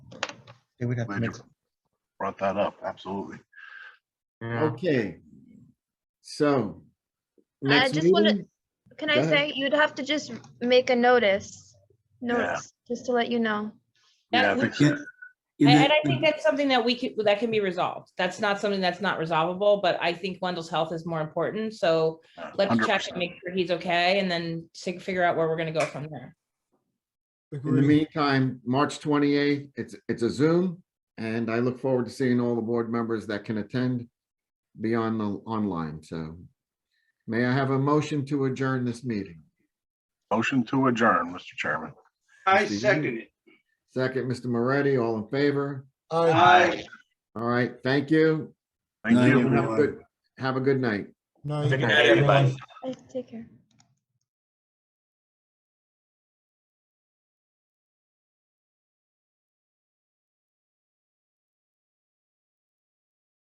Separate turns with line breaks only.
They would have to
Glad you
make,
Brought that up, absolutely.
Yeah.
Okay. So.
I
next
just want to,
meeting?
can
Go
I
ahead.
say, you'd have to just make a notice,
Yeah.
notice, just to let you know.
Yeah, I
That
think
would-
so.
And and I think that's something that we could, that can be resolved. That's not something that's not resolvable, but I think Wendell's health is more important. So
Uh,
let's check
100%.
and make sure he's okay and then sig- figure out where we're gonna go from there.
In the meantime, March twenty-eighth, it's, it's a Zoom, and I look forward to seeing all the board members that can attend beyond the online, so. May I have a motion to adjourn this meeting?
Motion to adjourn, Mr. Chairman.
I
Mr. Yu.
second it.
Second, Mr. Moretti, all in favor?
Aye.
Aye.
All right, thank you.
Thank
Thank
you.
you.
Have a good- have a good night.
Night.
Good night, everybody.
Take care.